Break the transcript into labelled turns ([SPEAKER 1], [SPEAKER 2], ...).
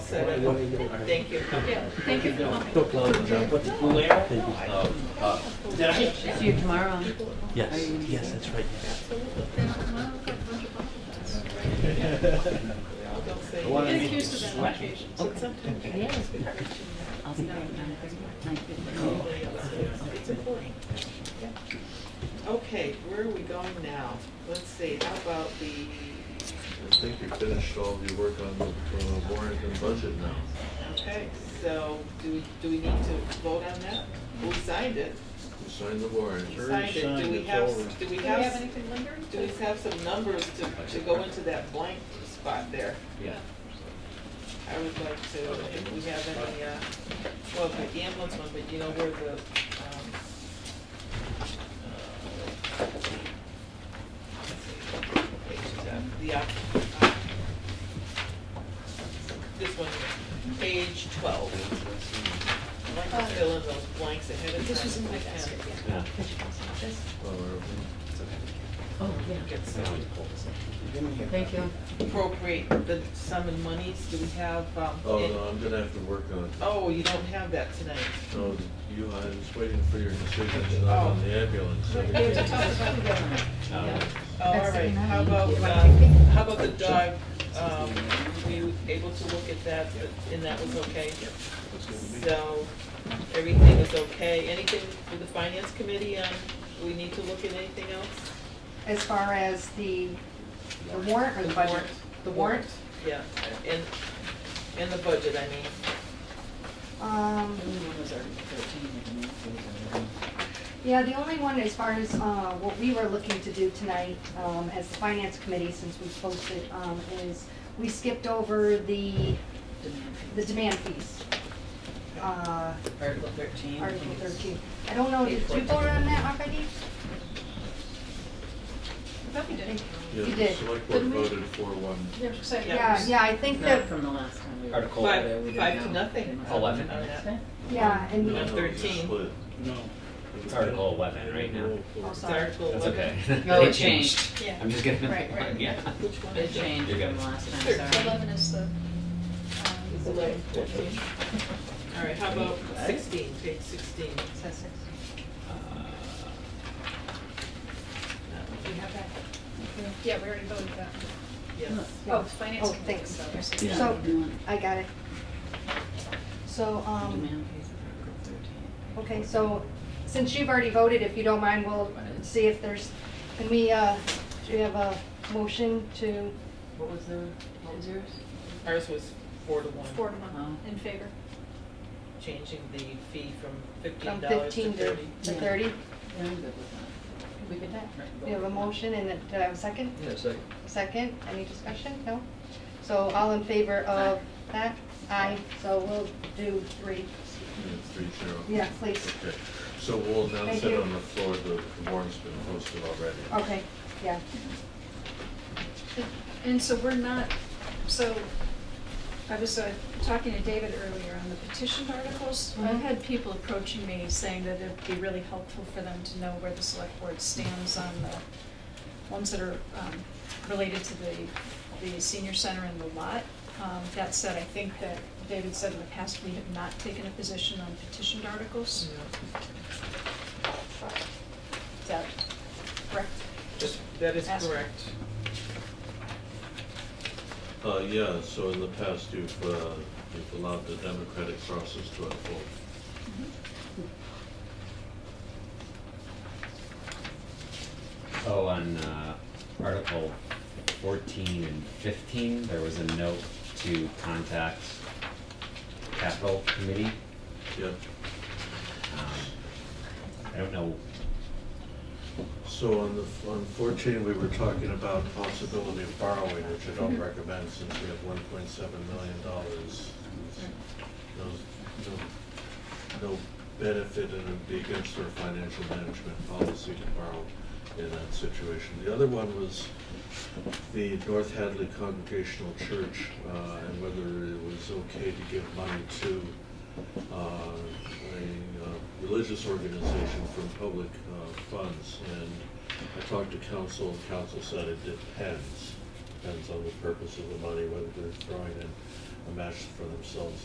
[SPEAKER 1] Thank you.
[SPEAKER 2] Yeah, thank you for coming.
[SPEAKER 3] Don't close it down. Thank you.
[SPEAKER 2] See you tomorrow.
[SPEAKER 3] Yes, yes, that's right. yes.
[SPEAKER 2] Get accused of that on occasion.
[SPEAKER 1] Oh,
[SPEAKER 2] I'll see you tomorrow. Nine fifteen.
[SPEAKER 1] Okay, where are we going now? Let's see, how about the,
[SPEAKER 4] I think you finished all your work on the uh, warrant and budget now.
[SPEAKER 1] okay, so do, we do we need to vote on that? Who signed it?
[SPEAKER 4] You signed the warrant.
[SPEAKER 1] Who Signed it, do we have, do we
[SPEAKER 2] Do we have
[SPEAKER 1] have,
[SPEAKER 2] anything lingering?
[SPEAKER 1] do we have some numbers to, to go into that blank spot there?
[SPEAKER 5] Yeah.
[SPEAKER 1] I would like to, if we have any, uh, well, the ambulance one, but you know where the, um, page is at, the, op- uh, this one, page twelve. I'd like to fill in those blanks ahead of time.
[SPEAKER 6] Uh, This was in
[SPEAKER 1] if
[SPEAKER 6] my
[SPEAKER 1] we can.
[SPEAKER 6] basket,
[SPEAKER 5] Yeah.
[SPEAKER 6] yeah.
[SPEAKER 4] Well, uh,
[SPEAKER 2] Oh, yeah.
[SPEAKER 1] Get some
[SPEAKER 2] Thank you.
[SPEAKER 1] Appropriate the sum in monies, do we have, um?
[SPEAKER 4] Oh,
[SPEAKER 1] in-
[SPEAKER 4] no, I'm gonna have to work on it.
[SPEAKER 1] Oh, you don't have that tonight.
[SPEAKER 4] No, you, I was waiting for your decision tonight on the
[SPEAKER 6] Oh.
[SPEAKER 4] ambulance.
[SPEAKER 2] We have to talk about the government.
[SPEAKER 5] Um,
[SPEAKER 1] Oh, Um, All right, how about, uh, how about the dog, um, were you able to look at that, and that was okay? So, everything is okay, anything with the finance committee, um, do we need to look at anything else?
[SPEAKER 6] As far as the, the warrant or the budget? The warrant?
[SPEAKER 1] Yeah, and, and the budget, I mean,
[SPEAKER 6] Um, yeah, the only one as far as, uh, what we were looking to do tonight, um, as the finance committee, since we posted, um, is we skipped over the, the demand fees. Uh,
[SPEAKER 7] Article thirteen.
[SPEAKER 6] Article thirteen. I don't know, did you vote on that already?
[SPEAKER 2] But we did.
[SPEAKER 4] Yeah,
[SPEAKER 6] You
[SPEAKER 4] the
[SPEAKER 6] did.
[SPEAKER 4] select board
[SPEAKER 2] Didn't we?
[SPEAKER 4] voted for one.
[SPEAKER 2] Yeah, so-
[SPEAKER 6] Yeah, yeah, I think
[SPEAKER 7] Not
[SPEAKER 6] that,
[SPEAKER 7] from the last time we were.
[SPEAKER 5] Article.
[SPEAKER 7] we
[SPEAKER 1] five,
[SPEAKER 7] didn't
[SPEAKER 1] five to
[SPEAKER 7] know.
[SPEAKER 1] nothing.
[SPEAKER 5] Eleven.
[SPEAKER 1] on that.
[SPEAKER 6] yeah, and
[SPEAKER 4] No, no,
[SPEAKER 6] we,
[SPEAKER 4] it was a
[SPEAKER 1] 13.
[SPEAKER 4] split.
[SPEAKER 5] It's Article eleven right now.
[SPEAKER 6] oh,
[SPEAKER 1] It's
[SPEAKER 6] sorry.
[SPEAKER 1] Article
[SPEAKER 5] That's
[SPEAKER 1] eleven.
[SPEAKER 5] okay.
[SPEAKER 7] No,
[SPEAKER 5] They
[SPEAKER 7] it changed.
[SPEAKER 2] Yeah.
[SPEAKER 5] I'm just gonna.
[SPEAKER 2] Right, right.
[SPEAKER 5] Yeah.
[SPEAKER 1] Which one
[SPEAKER 7] It
[SPEAKER 1] is it?
[SPEAKER 7] changed
[SPEAKER 5] You
[SPEAKER 7] from
[SPEAKER 5] got it.
[SPEAKER 7] the last
[SPEAKER 1] Thirteen.
[SPEAKER 7] time, sorry.
[SPEAKER 2] Eleven is the,
[SPEAKER 1] It's
[SPEAKER 2] um,
[SPEAKER 1] eleven, fourteen. All right, how about sixteen, page sixteen?
[SPEAKER 2] says six.
[SPEAKER 1] No,
[SPEAKER 2] Do you have that? Yeah, we already voted that.
[SPEAKER 1] Yes.
[SPEAKER 2] Oh, finance
[SPEAKER 6] Oh,
[SPEAKER 2] committee.
[SPEAKER 6] thanks.
[SPEAKER 2] sorry.
[SPEAKER 5] Yeah.
[SPEAKER 6] So, I got it. So, um,
[SPEAKER 7] Demand fees of Article thirteen.
[SPEAKER 6] okay, so, since you've already voted, if you don't mind, we'll see if there's, can we, uh, do we have a motion to,
[SPEAKER 1] What was the, what was yours? Ours was four to one.
[SPEAKER 2] Four to one, in favor.
[SPEAKER 1] Changing the fee from fifteen
[SPEAKER 6] from
[SPEAKER 1] dollars to
[SPEAKER 6] fifteen to
[SPEAKER 1] thirty.
[SPEAKER 6] to
[SPEAKER 7] Yeah.
[SPEAKER 6] thirty?
[SPEAKER 7] Yeah, I'm good with
[SPEAKER 6] We could,
[SPEAKER 7] that. Right,
[SPEAKER 6] we have a
[SPEAKER 7] vote.
[SPEAKER 6] motion and, a- do I have a second? Yeah, second. Second, any discussion? No? So, all in favor of that? Aye, so we'll do three.
[SPEAKER 4] Yeah, Three zero.
[SPEAKER 6] Yeah, please.
[SPEAKER 4] Okay, so we'll announce
[SPEAKER 6] Thank
[SPEAKER 4] it
[SPEAKER 6] you. Oh.
[SPEAKER 4] on the floor, the warrant's been posted already.
[SPEAKER 6] Okay, yeah.
[SPEAKER 2] And so we're not, so I was uh, talking to David earlier on the petition articles. I've
[SPEAKER 6] Mhm.
[SPEAKER 2] had people approaching me saying that it'd be really helpful for them to know where the select board stands on the ones that are um, related to the, the senior center and the lot. Um, That said, I think that David said in the past, we have not taken a position on petitioned articles. Is that correct?
[SPEAKER 1] That is
[SPEAKER 2] Ask-
[SPEAKER 1] correct.
[SPEAKER 4] Uh, yeah, so in the past, you've, uh, you've allowed the democratic process to unfold.
[SPEAKER 2] Mm-hmm.
[SPEAKER 5] Oh, on uh, Article fourteen and fifteen, there was a note to contact Capital Committee.
[SPEAKER 4] Yeah,
[SPEAKER 5] Um, I don't know,
[SPEAKER 4] so on the, on fourteen, we were talking about possibility of borrowing, which I don't recommend since we have one point seven million dollars. No, no benefit and it'd be against our financial management policy to borrow in that situation. The other one was the North Hadley Congregational Church, uh, and whether it was okay to give money to uh, a uh, religious organization from public uh, funds. And I talked to council, and council said it depends, depends on the purpose of the money, whether they're throwing in a match for themselves